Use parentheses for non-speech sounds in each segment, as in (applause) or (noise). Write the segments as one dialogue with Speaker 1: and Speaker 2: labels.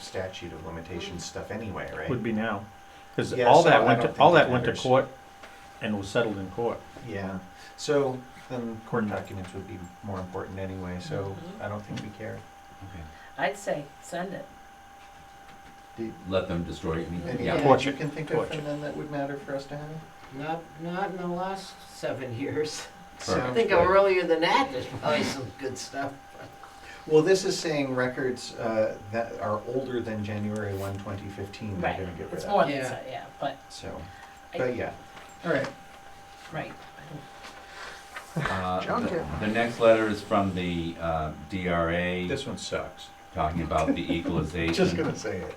Speaker 1: statute of limitations stuff anyway,
Speaker 2: would
Speaker 1: right?
Speaker 2: be now. Because
Speaker 1: Yeah,
Speaker 2: all
Speaker 1: so
Speaker 2: that
Speaker 1: I
Speaker 2: went,
Speaker 1: don't
Speaker 2: to
Speaker 1: think
Speaker 2: all
Speaker 1: it
Speaker 2: that went to
Speaker 1: matters.
Speaker 2: court and was settled in court.
Speaker 1: Yeah, so then court
Speaker 2: Mm.
Speaker 1: documents would be more important anyway, so
Speaker 3: Mm-hmm.
Speaker 1: I don't think we care.
Speaker 3: I'd say send it.
Speaker 4: Let them destroy it. I mean,
Speaker 1: Anything
Speaker 4: yeah.
Speaker 1: else you can think of
Speaker 2: Torture.
Speaker 1: from them that would matter for us to have?
Speaker 5: Not, not in the last seven years. I
Speaker 1: Sounds
Speaker 5: think
Speaker 4: good.
Speaker 5: earlier than that, there's probably some good stuff.
Speaker 1: Well, this is saying records uh, that are older than January 1, 2015, they're
Speaker 3: Right.
Speaker 1: gonna get rid
Speaker 3: It's
Speaker 1: of.
Speaker 3: more than
Speaker 5: Yeah.
Speaker 3: that, yeah, but,
Speaker 1: So,
Speaker 3: I-
Speaker 1: but yeah, all right.
Speaker 3: right.
Speaker 4: Uh,
Speaker 1: Junk
Speaker 4: the,
Speaker 1: it.
Speaker 4: the next letter is from the uh, DRA
Speaker 1: This one sucks.
Speaker 4: talking
Speaker 1: (laughs)
Speaker 4: about the equalization.
Speaker 1: Just gonna say it.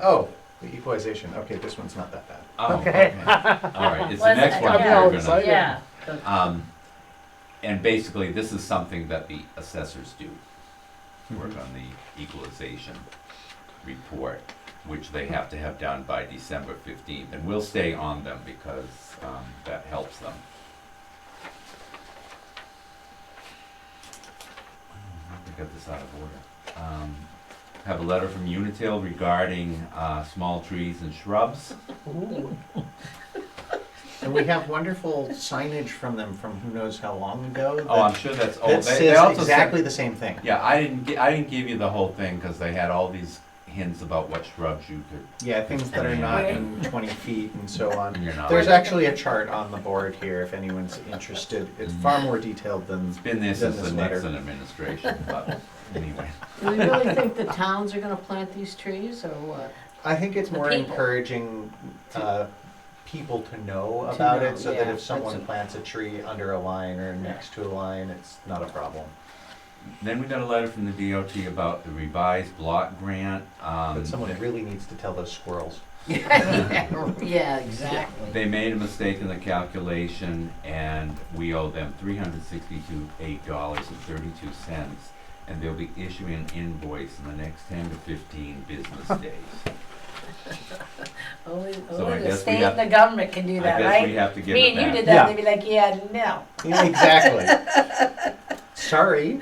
Speaker 1: Oh, the equalization, okay, this one's not that bad.
Speaker 4: Oh, okay. All right. It's the
Speaker 3: Well,
Speaker 4: next
Speaker 3: I-
Speaker 4: one.
Speaker 3: I'm
Speaker 4: that
Speaker 3: all
Speaker 4: we're gonna-
Speaker 1: excited.
Speaker 3: Yeah,
Speaker 4: Um, and basically, this is something that the assessors do,
Speaker 1: Mm-hmm.
Speaker 4: work on the equalization report, which they have to have done by December fifteenth, and we'll stay on them because, um, that helps them. I think I got this out of order. Um, have a letter from Unitil regarding, uh, small trees and shrubs.
Speaker 1: And we have wonderful signage from them from who knows how long ago.
Speaker 4: Oh, I'm
Speaker 1: that-
Speaker 4: sure that's, oh,
Speaker 1: That
Speaker 4: they, they
Speaker 1: says
Speaker 4: also sent
Speaker 1: exactly the same thing.
Speaker 4: Yeah, I didn't. gi- I didn't give you the whole thing because they had all these hints about what shrubs you could.
Speaker 1: Yeah, things that are not in twenty feet and so on.
Speaker 4: You're not.
Speaker 1: There's actually a chart on the board here if anyone's interested. It's far more detailed than,
Speaker 4: It's been there
Speaker 1: Then
Speaker 4: since the
Speaker 1: this letter.
Speaker 4: Nixon administration, but anyway.
Speaker 5: Do we really think the towns are gonna plant these trees or what?
Speaker 1: I think it's
Speaker 3: The
Speaker 1: more
Speaker 3: people.
Speaker 1: encouraging, uh, people to know about
Speaker 5: know,
Speaker 1: it so that
Speaker 5: yeah,
Speaker 1: if someone
Speaker 5: that's a-
Speaker 1: plants a tree under a line or next to a line, it's not a problem.
Speaker 4: Then we got a letter from the DOT about the revised block grant. Um,
Speaker 1: But someone really needs to tell those squirrels. (laughs)
Speaker 5: Yeah, exactly.
Speaker 4: They made a mistake in the calculation, and we owe them three hundred sixty-two eight dollars and thirty-two cents, and they'll be issuing an invoice in the next ten to fifteen business days.
Speaker 3: only,
Speaker 4: So I
Speaker 3: only the
Speaker 4: guess we
Speaker 3: state
Speaker 4: have-
Speaker 3: and the government can do
Speaker 4: I
Speaker 3: that,
Speaker 4: guess we
Speaker 3: right?
Speaker 4: have to give
Speaker 3: Me
Speaker 4: it
Speaker 3: and you
Speaker 4: back.
Speaker 3: did that,
Speaker 2: Yeah.
Speaker 3: they'd be like, yeah, no,
Speaker 1: Yeah, exactly. (laughs) sorry.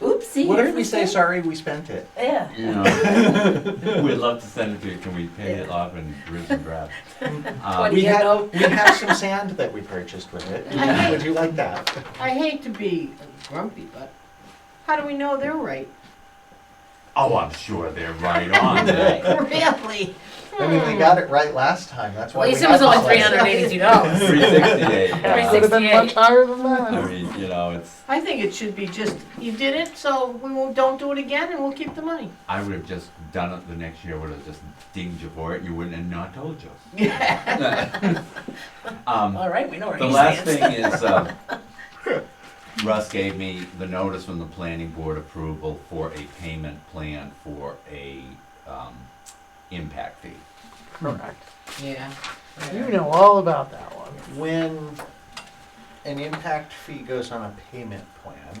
Speaker 3: oopsie.
Speaker 1: What if
Speaker 3: here's
Speaker 1: we
Speaker 3: the
Speaker 1: say
Speaker 3: stamp.
Speaker 1: sorry? We spent it.
Speaker 3: Yeah,
Speaker 4: You know, We'd love to send it to you, can we pay it off in dribs and Uh, drabs?
Speaker 3: What do
Speaker 1: we
Speaker 3: you
Speaker 1: had
Speaker 3: know?
Speaker 1: we have some sand that we purchased with it.
Speaker 5: Yeah.
Speaker 1: Would you like that?
Speaker 5: I hate to be grumpy, but how do we know they're right?
Speaker 4: Oh, I'm sure they're right on that.
Speaker 5: Really?
Speaker 1: I mean, they got it right last time. That's
Speaker 3: Hmm. at
Speaker 1: why.
Speaker 3: least
Speaker 1: we
Speaker 3: it was
Speaker 1: got
Speaker 3: only
Speaker 1: this
Speaker 3: three
Speaker 1: letter.
Speaker 3: hundred and eighty-two dollars.
Speaker 4: Three sixty-eight.
Speaker 3: Three
Speaker 4: uh,
Speaker 3: sixty eight.
Speaker 2: higher than that.
Speaker 4: I mean, you know, it's,
Speaker 5: I think it should be just, you did it, so we won't, don't do it again and we'll keep the money.
Speaker 4: I would have just done it the next year, would have just dinged you for it, you wouldn't have not told you. (laughs) Um,
Speaker 3: All right, we know where
Speaker 4: the
Speaker 3: he
Speaker 4: last
Speaker 3: stands.
Speaker 4: thing is, um, Russ gave me the notice from the planning board approval for a payment plan for a, um, impact fee.
Speaker 6: Correct.
Speaker 5: Yeah.
Speaker 6: You know all about that one.
Speaker 1: When an impact fee goes on a payment plan,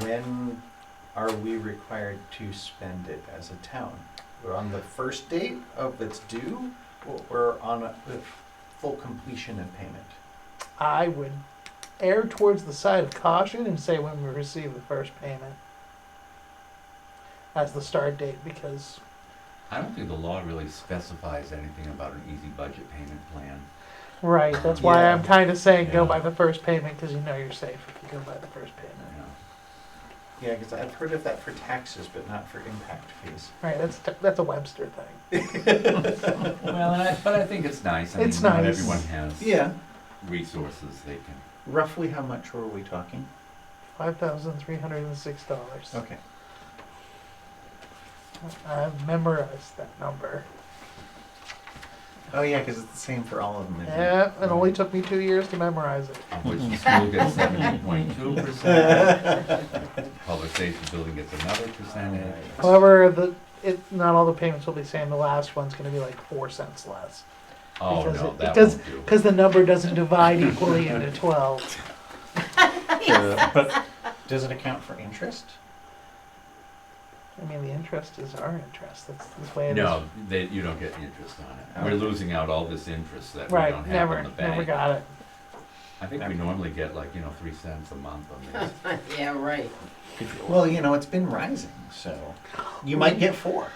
Speaker 1: when are we required to spend it as a town? We're on the first date of its due, or we're on a, the full completion of payment?
Speaker 6: I would err towards the side of caution and say when we receive the first payment as the start date because
Speaker 4: I don't think the law really specifies anything about an easy budget payment plan.
Speaker 6: right that's why
Speaker 1: Yeah.
Speaker 6: i'm kind of saying go
Speaker 4: Yeah.
Speaker 6: by the first payment because you know you're safe if you go by the first payment
Speaker 4: you know.
Speaker 1: Yeah, because I've heard of that for taxes, but not for impact fees.
Speaker 6: right that's t- that's a webster thing
Speaker 4: Well, and I, but I think it's nice. I
Speaker 6: It's
Speaker 4: mean, Not
Speaker 6: nice.
Speaker 4: everyone has
Speaker 1: Yeah.
Speaker 4: resources they can.
Speaker 1: Roughly how much were we talking?
Speaker 6: $5306
Speaker 1: Okay.
Speaker 6: i've memorized that number
Speaker 1: Oh, yeah, because it's the same for all of them. isn't it?
Speaker 6: yeah it only took me two years to memorize it
Speaker 4: Of which the school gets seventeen point two percent. Public safety building gets another percentage.
Speaker 1: All right.
Speaker 6: however the it not all the payments will be the same the last one's going to be like four cents less
Speaker 4: Oh
Speaker 6: Because
Speaker 4: no,
Speaker 6: it-
Speaker 4: that
Speaker 6: it does-
Speaker 4: won't do.
Speaker 6: Because the number doesn't divide equally into 12.
Speaker 1: (laughs)
Speaker 2: But
Speaker 1: Does it account for interest?
Speaker 6: I mean, the interest is our interest. That's the way it is.
Speaker 4: No, they, you don't get interest on it. We're
Speaker 1: Okay.
Speaker 4: losing out all this interest that we
Speaker 6: Right,
Speaker 4: don't have
Speaker 6: never,
Speaker 4: in the
Speaker 6: never
Speaker 4: bank.
Speaker 6: got it.
Speaker 4: I think we normally get like, you know, three cents a month on this.
Speaker 5: Yeah, right.
Speaker 1: Well, you know, it's been rising, so you might get four.